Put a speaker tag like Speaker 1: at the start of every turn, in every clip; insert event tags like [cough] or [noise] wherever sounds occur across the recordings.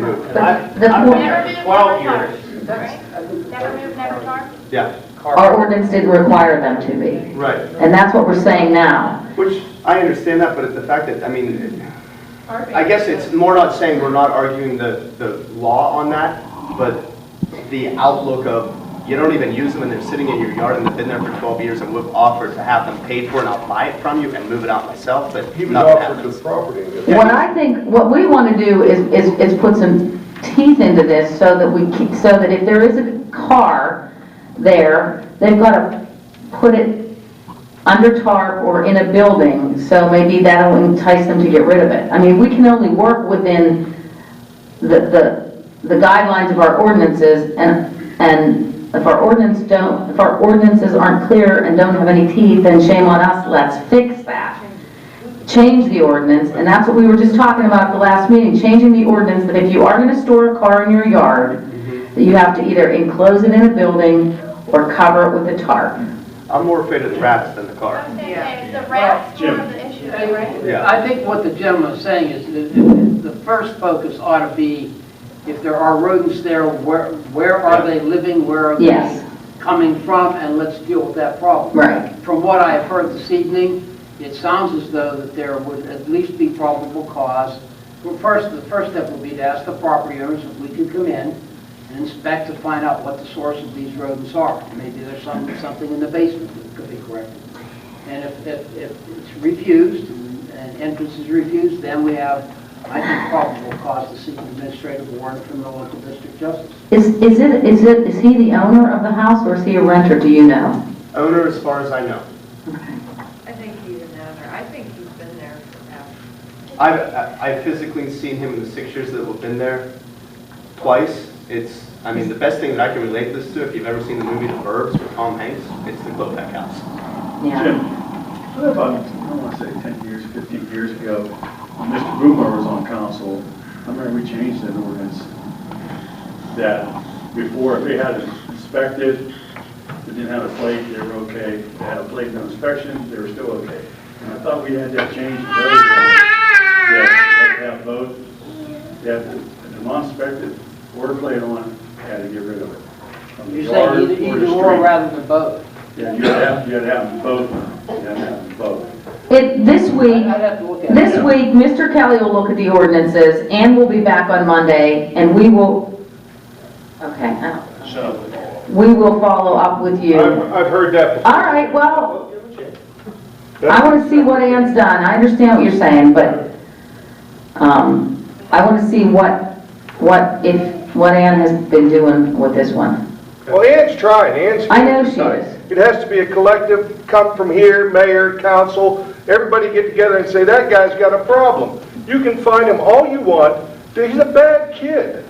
Speaker 1: moved.
Speaker 2: The-
Speaker 1: I've
Speaker 2: the
Speaker 1: I've
Speaker 2: point-
Speaker 1: been
Speaker 3: Never
Speaker 1: here
Speaker 3: move,
Speaker 1: twelve
Speaker 3: never
Speaker 1: years.
Speaker 3: target, right? Never move, never target?
Speaker 1: Yeah,
Speaker 2: Our ordinance didn't require them to be,
Speaker 1: right.
Speaker 2: and that's what we're saying now.
Speaker 1: Which, I understand that, but it's the fact that, I mean,
Speaker 3: Perfect.
Speaker 1: I guess it's more not saying we're not arguing the, the law on that, but the outlook of, you don't even use them and they're sitting in your yard and they've been there for 12 years and we've offered to have them paid for and I'll buy it from you and move it out myself, but
Speaker 4: He
Speaker 1: nothing
Speaker 4: was offered
Speaker 1: happens.
Speaker 4: the property. and it-
Speaker 2: What I think, what we want to do is, is, is put some teeth into this so that we, keep- so that if there is a car there, they've got to put it under tarp or in a building, so maybe that'll entice them to get rid of it. I mean, we can only work within the, the, the guidelines of our ordinances, and, and if our ordinance don't, if our ordinances aren't clear and don't have any teeth, then shame on us, let's fix that change the ordinance, and that's what we were just talking about at the last meeting, changing the ordinance that if you are gonna store a car in your yard, that you have to either enclose it in a building or cover it with a tarp.
Speaker 1: I'm more afraid of the rats than the car.
Speaker 3: I'm saying that it's the rats more of the issue, right?
Speaker 1: Yeah.
Speaker 5: I think what the gentleman is saying is that the first focus ought to be, if there are rodents there, where, where are they living, where are
Speaker 2: Yes.
Speaker 5: they coming from, and let's deal with that problem.
Speaker 2: Right.
Speaker 5: From what I have heard this evening, it sounds as though that there would at least be probable cause. Well, first, the first step would be to ask the property owners if we could come in and inspect to find out what the source of these rodents are. Maybe there's some, something in the basement that could be corrected. And if, if, if it's refused, and- and entrance is refused, then we have, I think, probable cause to seek an administrative warrant from the local district justice.
Speaker 2: Is, is it, is it, is he the owner of the house or is he a renter, do you know?
Speaker 1: Owner, as far as I know.
Speaker 6: I think he's an owner. I think he's been there forever.
Speaker 1: I've, I- I've physically seen him in the six years that we've been there twice. It's, I mean, the best thing that I can relate this to, if you've ever seen the movie The Burbs with Tom Hanks, it's the Klopek house.
Speaker 2: Yeah.
Speaker 7: Jim, what about, I want to say 10 years, 15 years ago, when Mr. Boomer was on council, I remember we changed an ordinance that before, if they had it inspected, if they didn't have a plate, they were okay. If they had a plate, no inspection, they were still okay. And I thought we had that changed. very well. That they have both, they have the non-inspected or plate on, had to get rid of it. from the
Speaker 5: You're
Speaker 7: yard
Speaker 5: saying either,
Speaker 7: or the
Speaker 5: either or
Speaker 7: street.
Speaker 5: rather than both.
Speaker 7: Yeah, you'd have, you'd have them both, you'd have them both.
Speaker 2: It, this week,
Speaker 5: I'd have to look at it.
Speaker 2: this week, Mr. Kelly will look at the ordinances, and we'll be back on Monday, and we will, okay, uh,
Speaker 7: So,
Speaker 2: we will follow up with you.
Speaker 4: I've, I've heard that before.
Speaker 2: All right, well, I want to see what Ann's done, I understand what you're saying, but, um, I want to see what, what, if, what Ann has been doing with this one.
Speaker 4: Well, Ann's trying, Ann's.
Speaker 2: I know she is.
Speaker 4: It has to be a collective, come from here, mayor, council, everybody get together and say, that guy's got a problem. You can find him all you want, he's a bad kid.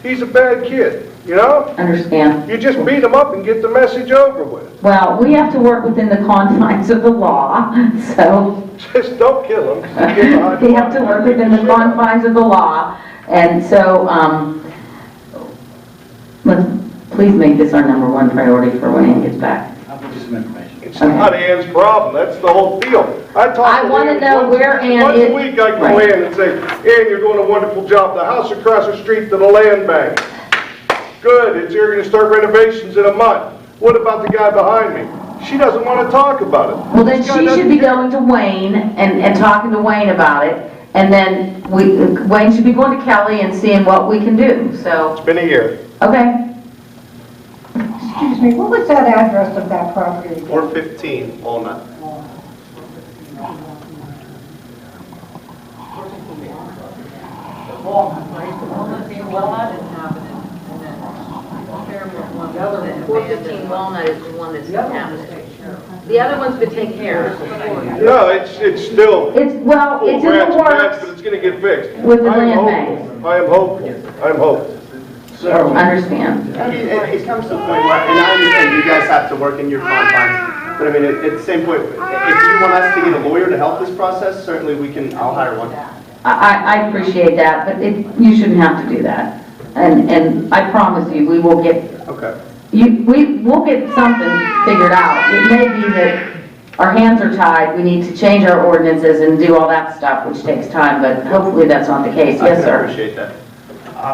Speaker 4: He's a bad kid, you know?
Speaker 2: Understand?
Speaker 4: You just beat him up and get the message over with. [laughs]
Speaker 2: Well, we have to work within the [laughs] confines of the law, so
Speaker 4: Just don't kill him. Uh,
Speaker 2: we have to work within the confines of the law, and so, um, let's, please make this our number one priority for when Ann gets back.
Speaker 7: how about just some information?
Speaker 4: It's not Ann's problem, that's the whole deal. I talk to
Speaker 2: I wanna
Speaker 4: Ann
Speaker 2: know
Speaker 4: once-
Speaker 2: where Ann
Speaker 4: Once
Speaker 2: is.
Speaker 4: a week, I go
Speaker 2: Right.
Speaker 4: in and say, Ann, you're doing a wonderful job, the house across the street to the land bank. Good, it's, you're gonna start renovations in a month. What about the guy behind me? She doesn't wanna talk about it.
Speaker 2: Well, then
Speaker 4: This guy
Speaker 2: she should be
Speaker 4: doesn't care.
Speaker 2: going to Wayne and, and talking to Wayne about it, and then we, Wayne should be going to Kelly and seeing what we can do, so,
Speaker 4: It's been a year.
Speaker 2: okay.
Speaker 8: Excuse me, what was that address of that property? again?
Speaker 1: 415 Walnut.
Speaker 6: Walnut, right? The Walnut, the Walnut inhabited, and then Fairmont one. The other one.
Speaker 9: Four fifteen Walnut is the one that's inhabited. The other one's been taken care of.
Speaker 4: No, it's, it's still
Speaker 2: It's, well,
Speaker 4: full
Speaker 2: it's in
Speaker 4: branch
Speaker 2: the
Speaker 4: mess, but
Speaker 2: works,
Speaker 4: Oh, it's gonna get fixed.
Speaker 2: With the
Speaker 4: I am
Speaker 2: land
Speaker 4: hopeful. I am hopeful, I am hopeful.
Speaker 7: So,
Speaker 2: understand.
Speaker 1: I mean, it, it comes to the point where, and I understand you guys have to work in your confines, but I mean, at, at the same point, if you want us to get a lawyer to help this process, certainly we can, I'll hire one.
Speaker 2: I, I, I appreciate that, but it, you shouldn't have to do that. And, and I promise you, we will get,
Speaker 1: Okay.
Speaker 2: you, we, we'll get something figured out. It may be that our hands are tied, we need to change our ordinances and do all that stuff, which takes time, but hopefully that's not the case, yes,
Speaker 1: I
Speaker 2: sir.
Speaker 1: appreciate that.